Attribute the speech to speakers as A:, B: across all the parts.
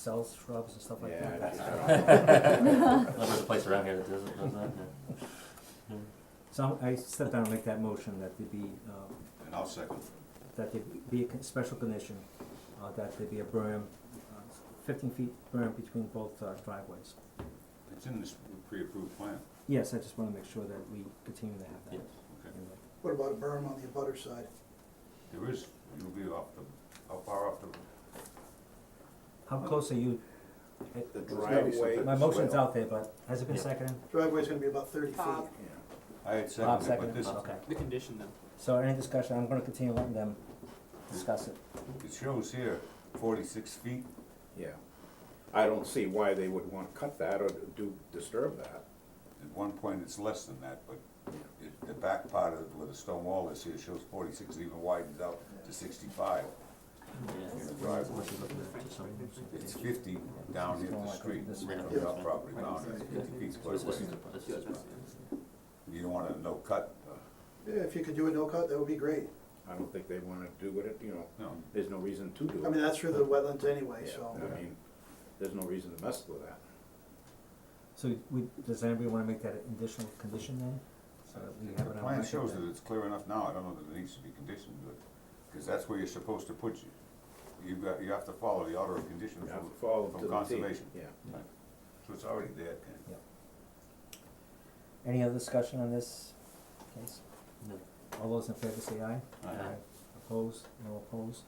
A: sells shrubs and stuff like
B: Yeah,
A: that.
C: Unless there's a place around here that does, does that, yeah.
A: So I step down and make that motion that there be, uh,
B: And I'll second.
A: that there be a con- special condition, uh, that there be a berm, uh, fifteen feet berm between both uh, driveways.
B: It's in this pre-approved plan,
A: Yes, I just wanna make sure that we continue to have
C: Yes.
A: that.
B: okay.
A: in the-
D: What about a berm on the abutter side?
B: There is, you'll be off the, how far off the?
A: How close are you? It-
E: The
B: It's
E: driveway.
A: My motion's
E: swell.
A: out there, but has it been
C: Yeah.
A: seconded?
D: Driveway's gonna be about thirty feet.
F: Bob.
B: I had
A: Bob
B: seconded, but
A: seconded,
B: this,
A: okay.
G: The condition though,
A: So any discussion, I'm gonna continue letting them discuss it.
B: it shows here forty-six feet.
E: Yeah. I don't see why they would want to cut that or do, disturb that.
B: At one point, it's less than that, but it, the back part of, where the stone wall is here shows forty-six, it even widens out to sixty-five.
C: Yeah.
B: in the driveway. It's fifty down here at the street, from your property down, it's fifty feet
C: So
B: quite
C: this
B: a ways.
C: is, this is,
B: You don't want a no cut,
D: Yeah, if you could do a no-cut, that would be great.
E: I don't think they want to do it, you know,
B: no,
E: there's no reason to do it.
D: I mean, that's through the wetlands anyway,
E: Yeah,
D: so.
E: I mean, there's no reason to mess with that.
A: So we, does anybody wanna make that an additional condition then? So that we have
B: The
A: it on
B: plan
A: record
B: shows
A: that-
B: that it's clear enough now, I don't know that it needs to be conditioned, but, because that's where you're supposed to put you. You've got, you have to follow the order of
E: You
B: conditions
E: have to
B: from,
E: follow to
B: from
E: the T.
B: conservation,
E: Yeah.
B: so it's already there, Ken.
A: Any other discussion on this case? All those in favor say aye.
B: Alright.
C: Aye.
A: Opposed, no opposed.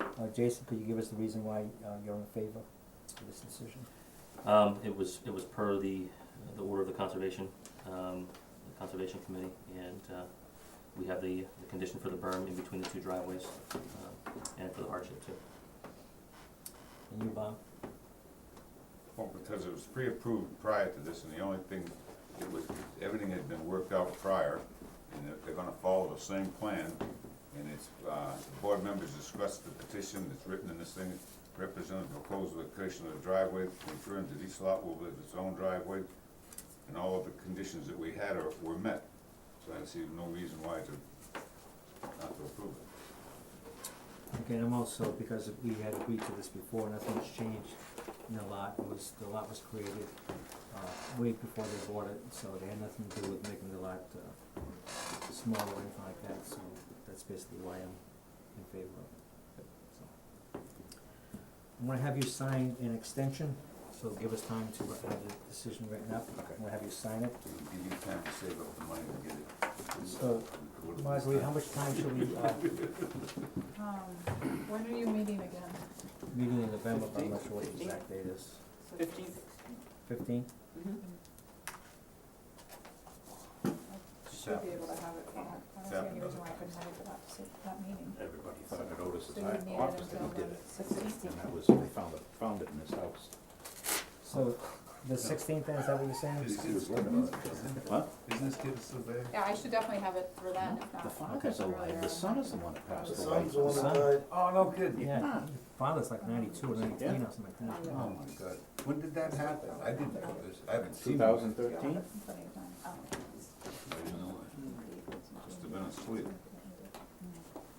A: Uh, Jason, could you give us the reason why, uh, you're in favor of this decision?
C: Um, it was, it was per the, the order of the conservation, um, the conservation committee, and, uh, we have the, the condition for the berm in between the two driveways, um, and for the hardship too.
A: And you, Bob?
B: Well, because it was pre-approved prior to this, and the only thing, it was, everything had been worked out prior, and they're, they're gonna follow the same plan, and it's, uh, board members discussed the petition that's written in this thing, represented proposed location of the driveway, confirmed that each lot will have its own driveway, and all of the conditions that we had are, were met, so I see no reason why to, not to approve it.
A: Okay, and I'm also, because we had agreed to this before, nothing's changed in the lot, it was, the lot was created, uh, way before they bought it, so they had nothing to do with making the lot, uh, smaller or anything like that, so that's basically why I'm in favor of it, so. I'm gonna have you sign an extension, so give us time to have the decision written up,
B: Okay.
A: I'm gonna have you sign it.
B: Give you time to save up the money to get it.
A: So, Marguerite, how much time should we, uh,
F: Um, when are you meeting again?
A: meeting in November, but I'm not sure what the exact date is,
G: Fifteenth.
A: fifteen?
F: Should be able to have it for that, I don't see any reason why I couldn't have it for that, si- that meeting.
E: Everybody thought I
F: So
E: noticed in
F: you would need
E: my
F: it
E: office that
F: until
E: he did
F: the
E: it.
F: sixteenth.
E: And that was, I found it, found it in his house.
A: So, the sixteenth, is that what you're saying?
B: This kid's working on it, doesn't he?
E: What?
B: Isn't this kid a surveyor?
F: Yeah, I should definitely have it for then, if not.
E: The father's alive, the son is the one that
D: The
E: passed away.
D: sun's the one that
A: Sun.
D: died.
B: Oh, no kidding.
E: Ah,
A: Yeah, father's like ninety-two or ninety-three or
E: Yeah.
A: something like that.
B: Oh my god, when did that happen? I didn't know this, I haven't
E: Two
B: seen it.
E: thousand thirteen?
F: Plenty of time. Oh, okay.
B: I didn't know it. Must have been asleep.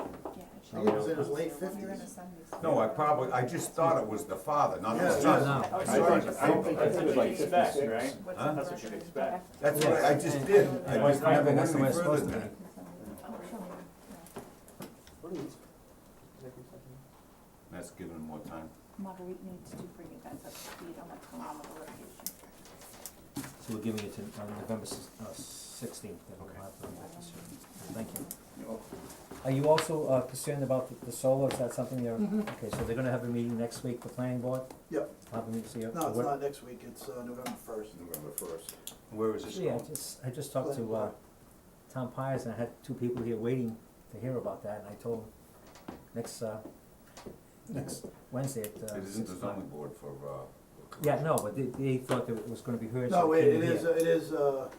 F: Yeah, it
D: I
F: should
D: think it was
F: be.
D: in his late
F: When you're
D: fifties.
F: gonna send these-
B: No, I probably, I just thought it was the father, not the
D: Yeah,
B: son.
A: No,
F: Oh,
E: I
B: sorry,
E: think,
B: I
E: I
B: don't
E: think
B: think
E: it was like
H: Back,
E: fifty-six.
H: right?
F: What's
B: Huh?
F: the
H: That's what you'd
F: record?
H: expect.
B: That's what, I just did, I
A: Right,
B: just never
A: right,
B: went
A: that's the way
B: any
A: it's
B: further
A: supposed to
B: than that.
A: be.
G: What are these?
B: That's giving him more time.
F: Marguerite needs to bring you guys up to speed on what's going on with the litigation.
A: So we're giving it to, on November uh, sixteenth, then we'll have the witness hearing. Thank you. Are you also uh, concerned about the- the solar, is that something you're,
F: Mm-hmm.
A: okay, so they're gonna have a meeting next week, the planning board?
D: Yep.
A: Have a meeting, so you're.
D: No, it's
A: what-
D: not next week, it's uh, November first.
E: November first.
B: Where is this
A: Yeah, I
B: going?
A: just, I just talked to, uh,
D: Planning
A: Tom Pires, and I had two people here waiting to hear about that, and I told them, next, uh, next Wednesday at, uh,
B: It isn't the
A: six o'clock.
B: zoning board for, uh.
A: Yeah, no, but they, they thought that it was gonna be heard,
D: No,
A: so
D: wait,
A: it
D: it
A: came
D: is,
A: here.
D: it is, uh,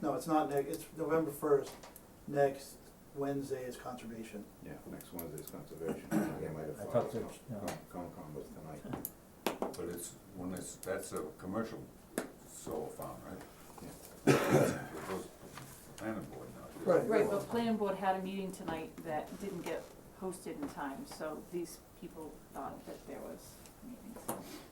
D: no, it's not next, it's November first. Next Wednesday is conservation.
E: Yeah, next Wednesday's conservation, I might have
A: I
E: thought
A: talked
E: it
A: to,
E: was
A: no.
E: Con- Con- Concom was tonight.
B: But it's, when it's, that's a commercial solar farm, right?
E: Yeah.
B: It goes to the planning board now. it
D: Right.
B: is.
H: Right, but planning board had a meeting tonight that didn't get posted in time, so these people thought that there was meetings.